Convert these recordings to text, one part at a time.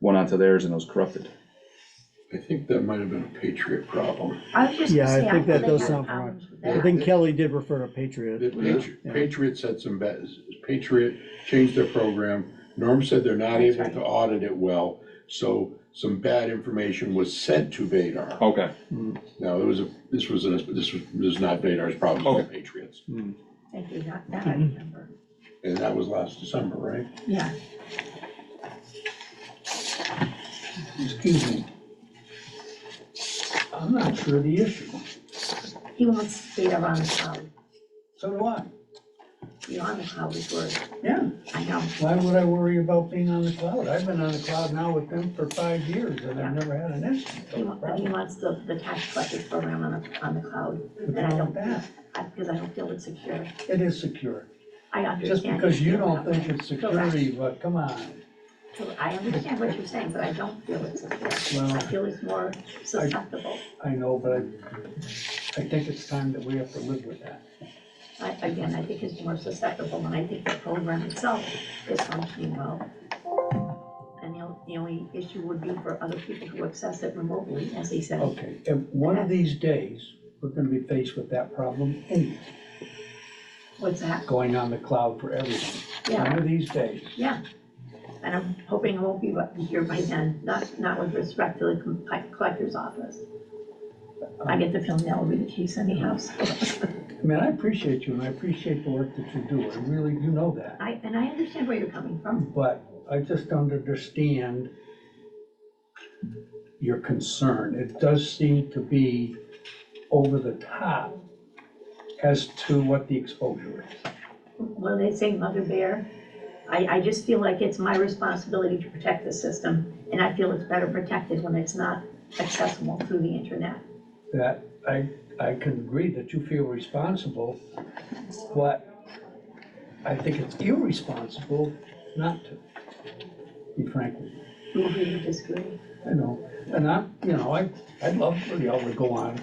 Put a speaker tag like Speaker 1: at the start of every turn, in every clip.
Speaker 1: went onto theirs and it was corrupted.
Speaker 2: I think that might have been a Patriot problem.
Speaker 3: I was just gonna
Speaker 4: Yeah, I
Speaker 3: say,
Speaker 4: think
Speaker 3: thought
Speaker 4: that
Speaker 3: they
Speaker 4: does
Speaker 3: had
Speaker 4: sound right.
Speaker 3: problems with
Speaker 4: I
Speaker 3: that.
Speaker 4: think Kelly did refer to Patriot.
Speaker 2: The Patri-
Speaker 4: Yeah.
Speaker 2: Patriots had some bad, Patriot changed their program. Norm said they're not
Speaker 3: That's
Speaker 2: able
Speaker 3: right.
Speaker 2: to audit it well, so some bad information was sent to Vadar.
Speaker 3: Oh.
Speaker 1: Okay,
Speaker 2: Now, it was, a this was, an- this was, this is not Vadar's problem,
Speaker 3: Oh.
Speaker 2: it was
Speaker 1: Okay.
Speaker 2: Patriots.
Speaker 3: They did not, that I
Speaker 4: Mm-hmm.
Speaker 3: remember,
Speaker 2: And that was last December, right?
Speaker 3: yeah.
Speaker 5: Excuse me. I'm not sure of the issue,
Speaker 3: He wants data on the cloud,
Speaker 5: so do I.
Speaker 3: you know, on the cloud is where,
Speaker 5: Yeah,
Speaker 3: I know,
Speaker 5: why would I worry about being on the cloud? I've been on the cloud now with them for five years and I've never had an issue.
Speaker 3: he wants, he wants the, the tax collector program on the, on the cloud, and I don't,
Speaker 5: that.
Speaker 3: I- because I don't feel it's secure,
Speaker 5: It is secure.
Speaker 3: I understand.
Speaker 5: Just because you
Speaker 3: feel
Speaker 5: don't
Speaker 3: that
Speaker 5: think
Speaker 3: way.
Speaker 5: it's security, but come on.
Speaker 3: Correct. I understand what you're saying, but I don't feel it's secure,
Speaker 5: Well,
Speaker 3: I feel it's more susceptible,
Speaker 5: I know, but I, I think it's time that we have to live with that.
Speaker 3: I, again, I think it's more susceptible, and I think the program itself is functioning well. And the, on- the only issue would be for other people who access it remotely, as he said,
Speaker 5: Okay, if one of these days, we're gonna be faced with that problem anyway,
Speaker 3: what's that,
Speaker 5: going on the cloud for everything.
Speaker 3: yeah,
Speaker 5: One of these days.
Speaker 3: yeah. And I'm hoping it won't be what- here by then, not, not with respect to the co- collector's office. I get the feeling that will be the case anyhow, so.
Speaker 5: I mean, I appreciate you and I appreciate the work that you do. I really, you know that.
Speaker 3: I, and I understand where you're coming from.
Speaker 5: But I just don't understand your concern. It does seem to be over the top as to what the exposure is.
Speaker 3: Well, they say mother bear. I, I just feel like it's my responsibility to protect the system, and I feel it's better protected when it's not accessible through the internet.
Speaker 5: That I, I can agree that you feel responsible, but I think it's irresponsible not to, be frank with you.
Speaker 3: You agree or disagree?
Speaker 5: I know, and I, you know, I, I'd love for y'all to go on.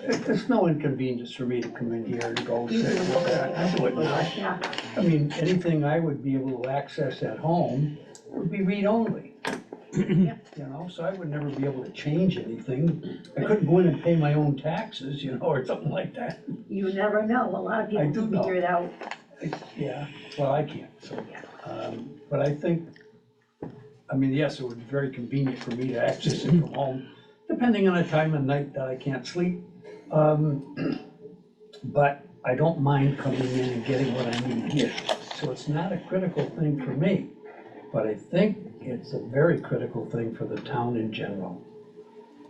Speaker 5: It- It's no inconvenience for me to come in here and go
Speaker 3: You
Speaker 5: say,
Speaker 3: do
Speaker 5: "Well, I I do it now."
Speaker 3: Yeah,
Speaker 5: I mean, anything I would be able to access at home would be read-only. You know, so I would never be able to change anything. I couldn't go in and pay my own taxes, you know, or something like that.
Speaker 3: you never know. A lot of
Speaker 5: I
Speaker 3: people
Speaker 5: do
Speaker 3: can
Speaker 5: know.
Speaker 3: figure it out.
Speaker 5: Yeah, well, I can't, so.
Speaker 3: Yeah.
Speaker 5: Um, But I think, I mean, yes, it would be very convenient for me to access it from home, depending on the time of night that I can't sleep. Um, But I don't mind coming in and getting what I need here. So it's not a critical thing for me, but I think it's a very critical thing for the town in general.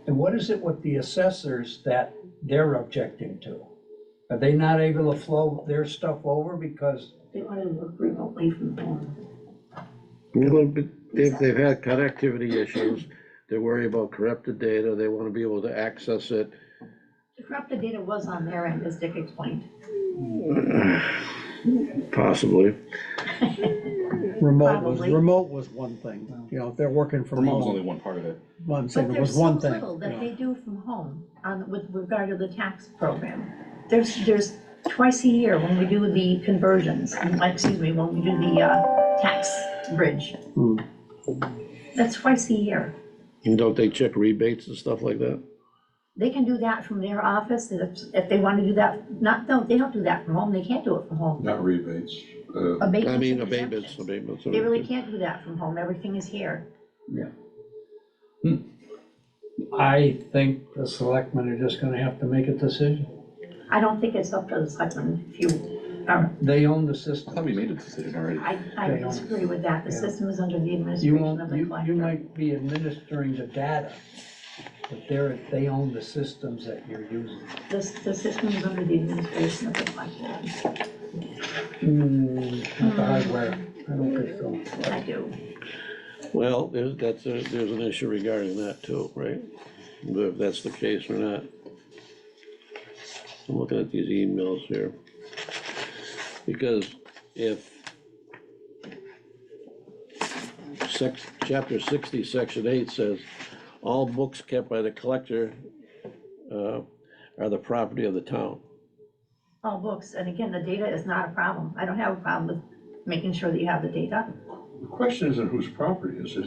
Speaker 5: And what is it with the assessors that they're objecting to? Are they not able to flow their stuff over because
Speaker 3: They want to work remotely from home.
Speaker 6: Well, but If they've had connectivity issues, they worry about corrupted data, they wanna be able to access it.
Speaker 3: The corrupted data was on their end, as Dick explained.
Speaker 6: Possibly.
Speaker 4: Remote was,
Speaker 3: Probably.
Speaker 4: remote was one thing, you know, if they're working from
Speaker 1: Vermont was only
Speaker 4: home,
Speaker 1: one part of it.
Speaker 4: but I'm saying
Speaker 3: But
Speaker 4: it
Speaker 3: there's
Speaker 4: was
Speaker 3: so
Speaker 4: one thing.
Speaker 3: little
Speaker 4: you
Speaker 3: that
Speaker 4: know.
Speaker 3: they do from home on, with regard to the tax program. There's, there's twice a year when we do the conversions, like, excuse me, when we do the, uh, tax bridge.
Speaker 6: Hmm.
Speaker 3: That's twice a year.
Speaker 6: And don't they check rebates and stuff like that?
Speaker 3: They can do that from their office, if, if they wanna do that, not, no, they don't do that from home, they can't do it from home.
Speaker 2: Not rebates, uh,
Speaker 3: Abatements
Speaker 6: I
Speaker 3: and
Speaker 6: mean, abatements,
Speaker 3: exemptions.
Speaker 6: abatements.
Speaker 3: They really can't do that from home, everything is here.
Speaker 5: I think the selectmen are just gonna have to make a decision.
Speaker 3: I don't think it's up to the selectmen if you are,
Speaker 5: They own the
Speaker 1: I thought
Speaker 5: system.
Speaker 1: we made a decision already.
Speaker 3: I, I
Speaker 5: They don't.
Speaker 3: disagree with that, the
Speaker 5: Yeah.
Speaker 3: system is under the
Speaker 5: You
Speaker 3: administration of
Speaker 5: won't,
Speaker 3: the
Speaker 5: you, you
Speaker 3: collector.
Speaker 5: might be administering the data, but they're, they own the systems that you're using.
Speaker 3: The, the system is under the administration of the collector.
Speaker 5: Hmm, not the hardware. I don't think so.
Speaker 3: I do.
Speaker 6: Well, there's, that's, a- there's an issue regarding that too, right? If that's the case or not. I'm looking at these emails here. Because if sec chapter sixty, section eight says, all books kept by the collector uh, are the property of the town.
Speaker 3: All books, and again, the data is not a problem. I don't have a problem with making sure that you have the data.
Speaker 2: the question isn't whose property this is,